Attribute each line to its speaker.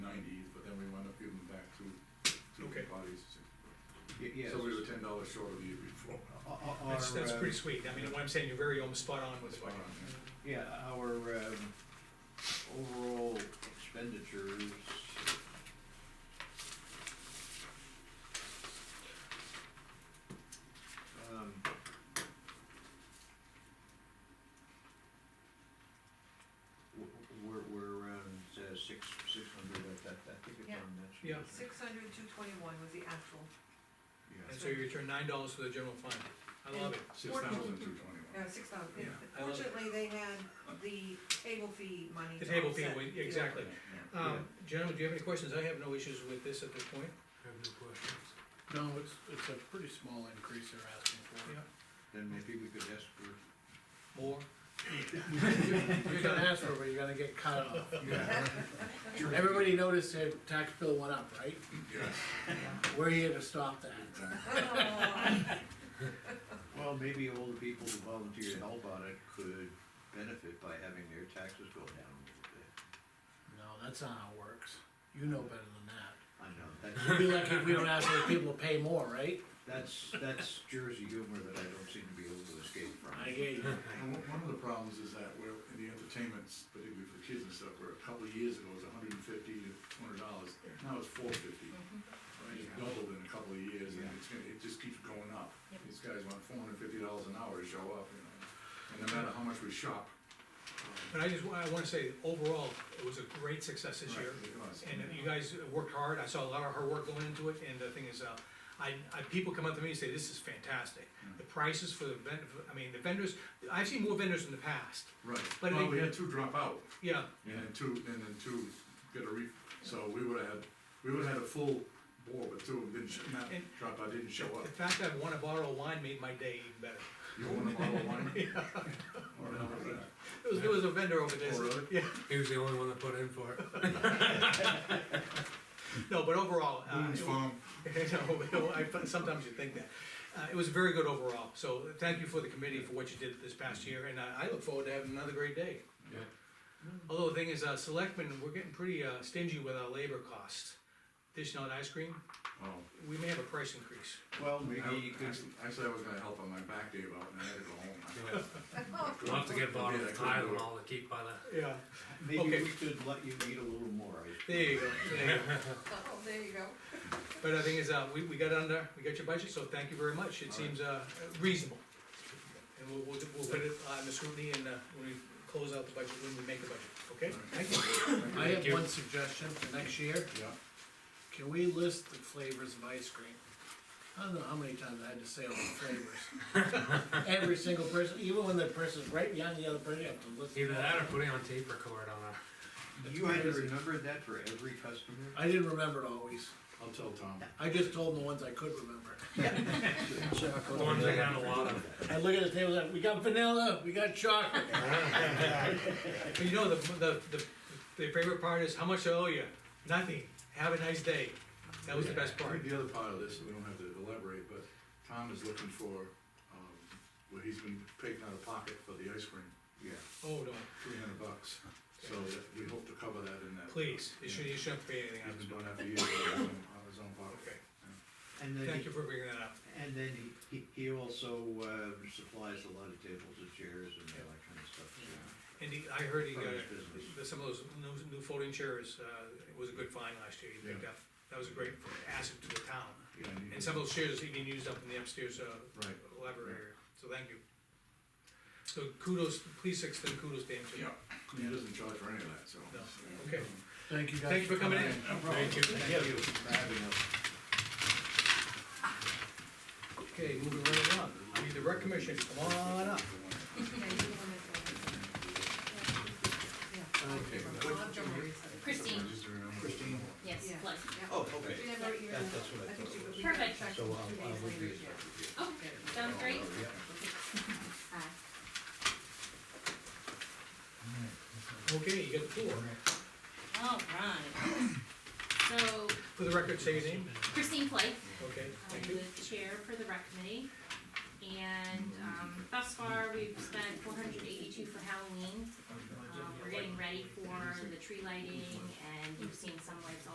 Speaker 1: Y- yes.
Speaker 2: So we were ten dollars short of you before.
Speaker 1: O- o- our,
Speaker 3: That's, that's
Speaker 1: um,
Speaker 3: pretty sweet, I mean, what I'm saying, you're very almost spot on with
Speaker 2: Spot
Speaker 3: what.
Speaker 2: on, yeah.
Speaker 1: Yeah, our, um, overall expenditures. Um. w- w- We're, we're around uh, six, six hundred, I, I I think it's
Speaker 4: Yeah.
Speaker 1: on that sheet.
Speaker 3: Yeah.
Speaker 4: Six hundred, two twenty-one was the actual,
Speaker 1: Yeah.
Speaker 3: And so you return nine dollars to the general fund, I love it,
Speaker 2: Six thousand two twenty-one.
Speaker 4: no, six thousand.
Speaker 2: Yeah.
Speaker 3: I love it.
Speaker 4: Fortunately, they had the table fee money.
Speaker 3: the
Speaker 4: to
Speaker 3: table fee,
Speaker 4: offset.
Speaker 3: we-
Speaker 4: Yeah.
Speaker 3: exactly.
Speaker 2: Yeah.
Speaker 3: Um, gentlemen, do you have any questions? I have no issues with this at this point.
Speaker 5: have no questions.
Speaker 6: No, it's, it's a pretty small increase they're asking for.
Speaker 1: Then maybe we could ask for,
Speaker 3: More?
Speaker 6: You're gonna ask for it, but you're gonna get cut off.
Speaker 2: Yeah.
Speaker 6: Everybody noticed their tax bill went up, right?
Speaker 2: Yeah.
Speaker 6: We're here to stop that.
Speaker 1: well,
Speaker 4: Oh,
Speaker 1: maybe all the people who volunteer to help on it could benefit by having their taxes go down a little bit.
Speaker 6: No, that's not how it works. You know better than that.
Speaker 1: I know, that's,
Speaker 6: It'd be like if we don't ask the people to pay more, right?
Speaker 1: that's, that's Jersey humor that I don't seem to be able to escape from.
Speaker 6: I get you.
Speaker 2: And one, one of the problems is that where, in the entertainments, particularly for kids and stuff, where a couple of years ago it was hundred and fifty to two hundred dollars, now it's four fifty. It's doubled in a couple of years, and
Speaker 1: Yeah.
Speaker 2: it's gonna, it just keeps going up.
Speaker 4: Yep.
Speaker 2: These guys want four hundred and fifty dollars an hour to show up, you know, and no matter how much we shop. um,
Speaker 3: But I just, wa- I wanna say, overall, it was a great success this
Speaker 2: right,
Speaker 3: year.
Speaker 2: it was.
Speaker 3: And you guys worked hard, I saw a lot of hard work going into it, and the thing is, uh, I, I, people come up to me and say, this is fantastic.
Speaker 2: Mm.
Speaker 3: The prices for the ven, I mean, the vendors, I've seen more vendors in the past,
Speaker 2: Right,
Speaker 3: But
Speaker 2: well,
Speaker 3: it-
Speaker 2: we had two drop out,
Speaker 3: yeah,
Speaker 2: and then two, and then two get a re, so we would've had, we would've had a full board, but two of them didn't, sh- not,
Speaker 3: And-
Speaker 2: drop out didn't show up.
Speaker 3: the fact that I won a bottle of wine made my day even better.
Speaker 2: You want a bottle of wine? Or how about that?
Speaker 3: There was, there was a vendor over there.
Speaker 2: Oh, really?
Speaker 3: Yeah,
Speaker 5: He was the only one that put in for it.
Speaker 3: no, but overall, uh,
Speaker 2: Boone's
Speaker 3: it-
Speaker 2: Farm.
Speaker 3: No, but I, but sometimes you think that. Uh, it was very good overall, so thank you for the committee for what you did this past year, and I, I look forward to having another great day.
Speaker 2: Yeah.
Speaker 3: Although the thing is, uh, selectmen, we're getting pretty, uh, stingy with our labor costs. Dish out ice cream,
Speaker 2: Oh.
Speaker 3: we may have a price increase.
Speaker 1: Well,
Speaker 2: I-
Speaker 1: maybe you could,
Speaker 2: actually- Actually, I was gonna help on my back day out, and I had to go home.
Speaker 5: We'll have to get a bottle
Speaker 2: Yeah, I
Speaker 5: of
Speaker 2: couldn't do it.
Speaker 5: Tylenol to keep by the,
Speaker 3: Yeah.
Speaker 1: maybe
Speaker 3: Okay.
Speaker 1: we could let you eat a little more. I-
Speaker 3: There you go, there you go.
Speaker 4: oh, there you go.
Speaker 3: But the thing is, uh, we, we got under, we got your budget, so thank you very much, it
Speaker 2: All
Speaker 3: seems, uh, reasonable. And we'll, we'll, we'll put it on the scrutiny and, uh, when we close out the budget, when we make the budget, okay? Thank you.
Speaker 6: I
Speaker 5: Thank
Speaker 6: have
Speaker 5: you.
Speaker 6: one suggestion for next year.
Speaker 2: Yeah.
Speaker 6: Can we list the flavors of ice cream? I don't know how many times I had to say all the flavors. Every single person, even when the person's right behind the other person, you have to listen.
Speaker 5: either that or put it on tape record on a,
Speaker 1: You had to
Speaker 6: crazy.
Speaker 1: remember that for every customer?
Speaker 6: I didn't remember it always.
Speaker 2: I'll tell Tom.
Speaker 6: I just told them the ones I could remember.
Speaker 5: the ones that had a lot of.
Speaker 6: I look at the table, like, we got vanilla, we got chocolate.
Speaker 3: But you know, the, the, the, the favorite part is how much I owe you? Nothing. Have a nice day. That was the best
Speaker 2: I
Speaker 3: part.
Speaker 2: think the other part of this, we don't have to elaborate, but Tom is looking for, um, where he's been paying out of pocket for the ice cream,
Speaker 1: Yeah.
Speaker 3: Oh, no,
Speaker 2: three hundred bucks. So that- we hope to cover that in that.
Speaker 3: please, you should, you shouldn't pay anything out
Speaker 2: He's
Speaker 3: of
Speaker 2: been doing
Speaker 3: this.
Speaker 2: that for years, out of his own- out of his own pocket.
Speaker 3: Okay,
Speaker 1: And then,
Speaker 3: thank
Speaker 1: he-
Speaker 3: you for bringing that up.
Speaker 1: and then he, he- he also uh, supplies a lot of tables and chairs and all that kind of stuff. so.
Speaker 3: And he, I heard he got,
Speaker 1: From
Speaker 3: a-
Speaker 1: his business.
Speaker 3: the- some of those new, new folding chairs, uh, it was a good find last year. He picked
Speaker 2: Yeah.
Speaker 3: up, that was a great asset to the town.
Speaker 2: Yeah, and you-
Speaker 3: And some of those chairs even used up in the upstairs, uh,
Speaker 2: Right.
Speaker 3: library area, so thank you. So kudos, please extend kudos to him too.
Speaker 2: Yeah, he doesn't charge for any of that, so.
Speaker 3: No, okay.
Speaker 6: Thank you guys.
Speaker 3: Thank you for coming in.
Speaker 5: Thank you.
Speaker 1: Thank you for having us.
Speaker 3: Okay, moving right along, we need the rec commission, come on up.
Speaker 4: Yeah, you can limit that. Yeah.
Speaker 2: Okay.
Speaker 4: I'll have John Murray say it.
Speaker 7: Christine,
Speaker 2: Just remember-
Speaker 1: Christine.
Speaker 7: yes,
Speaker 4: Yeah.
Speaker 7: Liz.
Speaker 4: Yeah.
Speaker 1: Oh, okay.
Speaker 4: She never even,
Speaker 1: That- that's what I
Speaker 4: I think she,
Speaker 1: thought it was.
Speaker 4: but we haven't
Speaker 7: Perfect.
Speaker 4: checked
Speaker 1: So uh, I'll,
Speaker 4: two
Speaker 1: I'll
Speaker 4: days
Speaker 1: review it.
Speaker 4: later yet.
Speaker 7: Oh, sounds great. Aye.
Speaker 3: Okay, you got the floor.
Speaker 7: All right. So
Speaker 3: For the record, say your name.
Speaker 7: Christine Flake,
Speaker 3: Okay,
Speaker 7: I'm
Speaker 3: thank you.
Speaker 7: the chair for the rec committee. And um, thus far, we've spent four hundred eighty-two for Uh, Halloween. Um, We're getting ready for the tree lighting and you've seen some lights